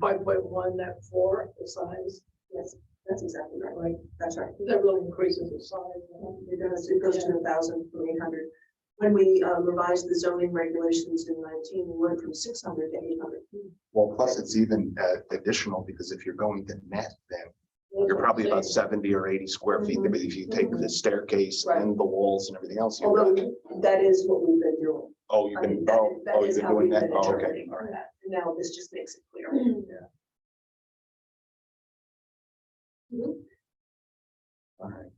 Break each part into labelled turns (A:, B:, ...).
A: five point one, that four, the size,
B: Yes, that's exactly right, right, that's right.
A: that really increases the size. huh?
B: It does, it goes to a thousand from eight hundred. When we uh, revised the zoning regulations in nineteen, we went from six hundred to eight hundred.
C: Well, plus it's even uh, additional because if you're going to net, then you're probably about seventy or eighty square feet.
B: Mhm.
C: But if you take the staircase
B: Right.
C: and the walls and everything else, you're
B: Although
C: at,
B: that is what we've been doing.
C: oh, you
B: I
C: can,
B: mean, that
C: oh,
B: is-
C: oh,
B: that
C: you've
B: is
C: been
B: how
C: doing
B: we've
C: that.
B: been
C: Oh, okay.
B: interpreting
C: All right.
B: that. Now this just makes it clear.
C: All right.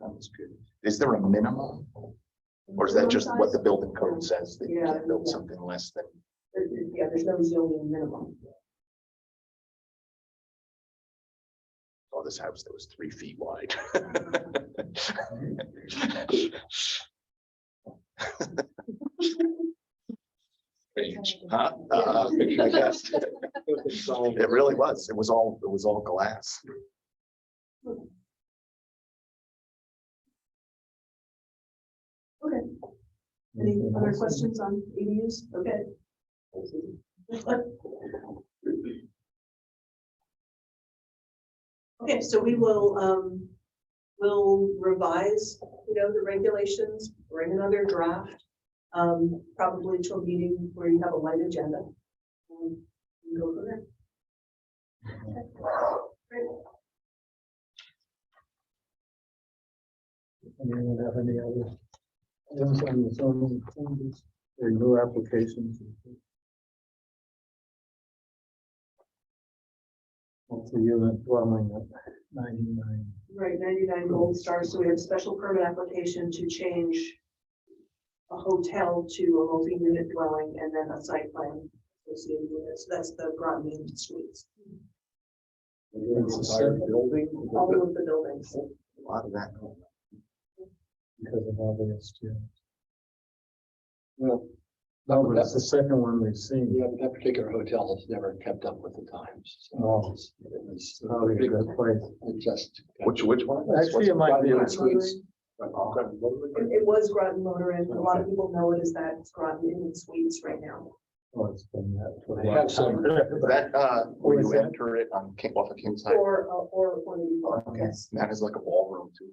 C: That was good. Is there a minimum? Or is that just what the building code says that you
B: Yeah,
C: can't build
B: yeah.
C: something less than?
B: There- there- Yeah, there's no zoning minimum.
C: Oh, this house that was three feet wide. Strange, huh? Uh, yes. It really was. It was all, it was all glass.
B: Okay. Any
C: Mm-hmm.
B: other questions on ADUs? Okay. Okay, so we will, um, we'll revise, you know, the regulations, bring another draft. Um, probably to a meeting where you have a light agenda. Um, and Go from there.
D: Anyone have any other? items on the zoning changes or new applications. Multi-unit dwelling at ninety-nine.
B: Right, ninety-nine gold stars, so we have special permit application to change a hotel to a multi-unit dwelling and then a site plan associated with it, so that's the Broadman Suites,
D: It's a separate building
B: all of the buildings.
C: A lot of that.
D: because of all the STOs. Well, that was the second one we've seen.
E: Yeah, but that particular hotel has never kept up with the times.
D: Oh.
E: so it's- It was,
D: Probably a good place.
E: it just.
C: Which, which one?
D: Actually, it might be.
E: Broadman Suites.
B: It it was Groton Motor and a lot of people know it as that, it's Groton Inn and Suites right now.
D: Oh, it's been that for a
E: They
D: long
E: have some-
D: time.
C: Is That, uh, where
D: What is
C: you
D: that?
C: enter it on King, off of King's Highway.
B: Or, uh, or, or the, yes,
C: That is like a ballroom too.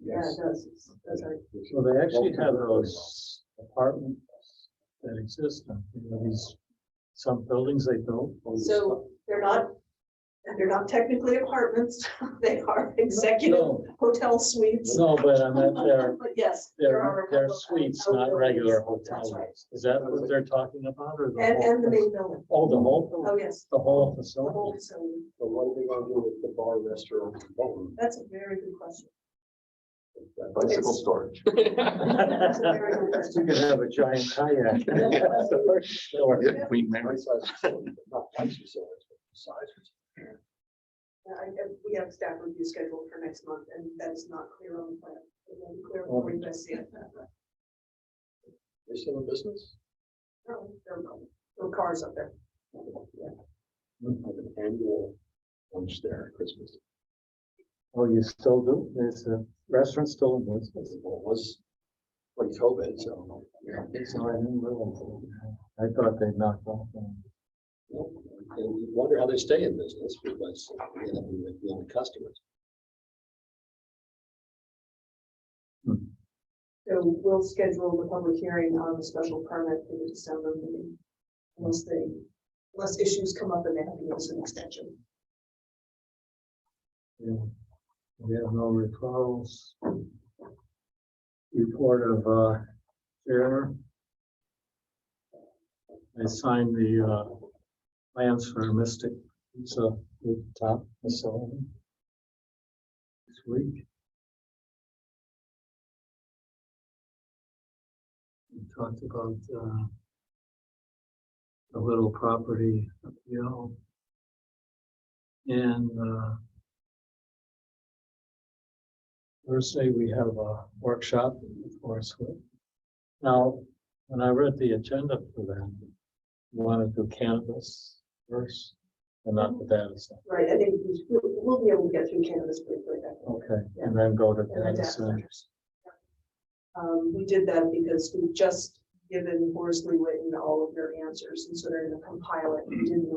B: yeah, it
E: Yes.
B: does, It's- that's right.
D: So they actually have those apartments that exist, on, you know, these, some buildings they built. all this stuff.
B: So they're not, they're not technically apartments, they are executive
D: No,
B: hotel suites.
D: No, but I meant they're,
B: But yes. there are
D: they're,
B: a
D: they're
B: couple of
D: suites,
B: hotel
D: not regular
B: buildings.
D: hotel
B: That's right.
D: rooms. Is that what they're talking about or the
B: And,
D: whole?
B: and the
D: place?
B: main building.
D: Oh, the whole, building,
B: Oh, yes.
D: the whole
B: The whole
D: facility.
B: facility.
E: So what are they gonna do with the bar, restaurant, phone?
B: That's a very good question.
C: Bicycle storage.
B: That's a very good
D: You
B: question.
D: could have a giant kayak. That's the first store.
C: Yeah, Queen Mary.
B: Yeah, I- I- We have staff review scheduled for next month and that is not clear on the plan. It will be clear before you guys see it.
E: They still in business?
B: No, there are no- No cars up there.
E: Like an annual lunch there at Christmas.
D: Oh, you still do? There's a restaurant still in business.
E: Well, it was pre COVID, so. yeah.
D: So I didn't realize. that. I thought they knocked off. on-
E: And you wonder how they stay in business because, you know, we were the only customers.
B: So we'll schedule the public hearing on the special permit for the December meeting. Unless they, unless issues come up and they have to give us an extension.
D: Yeah. We have no referrals. Report of, uh, chair. I signed the, uh, plans for Mystic, it's a rooftop facility. This week. We talked about, uh, the little property appeal. And, uh, Thursday, we have a workshop for us. Now, when I read the agenda for that, you want to do cannabis first and not the data center.
B: Right, I think we- we'll, we'll be able to get through cannabis pretty quick. I think.
D: Okay, and then go to
B: and the
D: data
B: data
D: center.
B: centers. Um, we did that because we've just given Horace Lee Witten all of their answers, and so they're gonna compile it. We didn't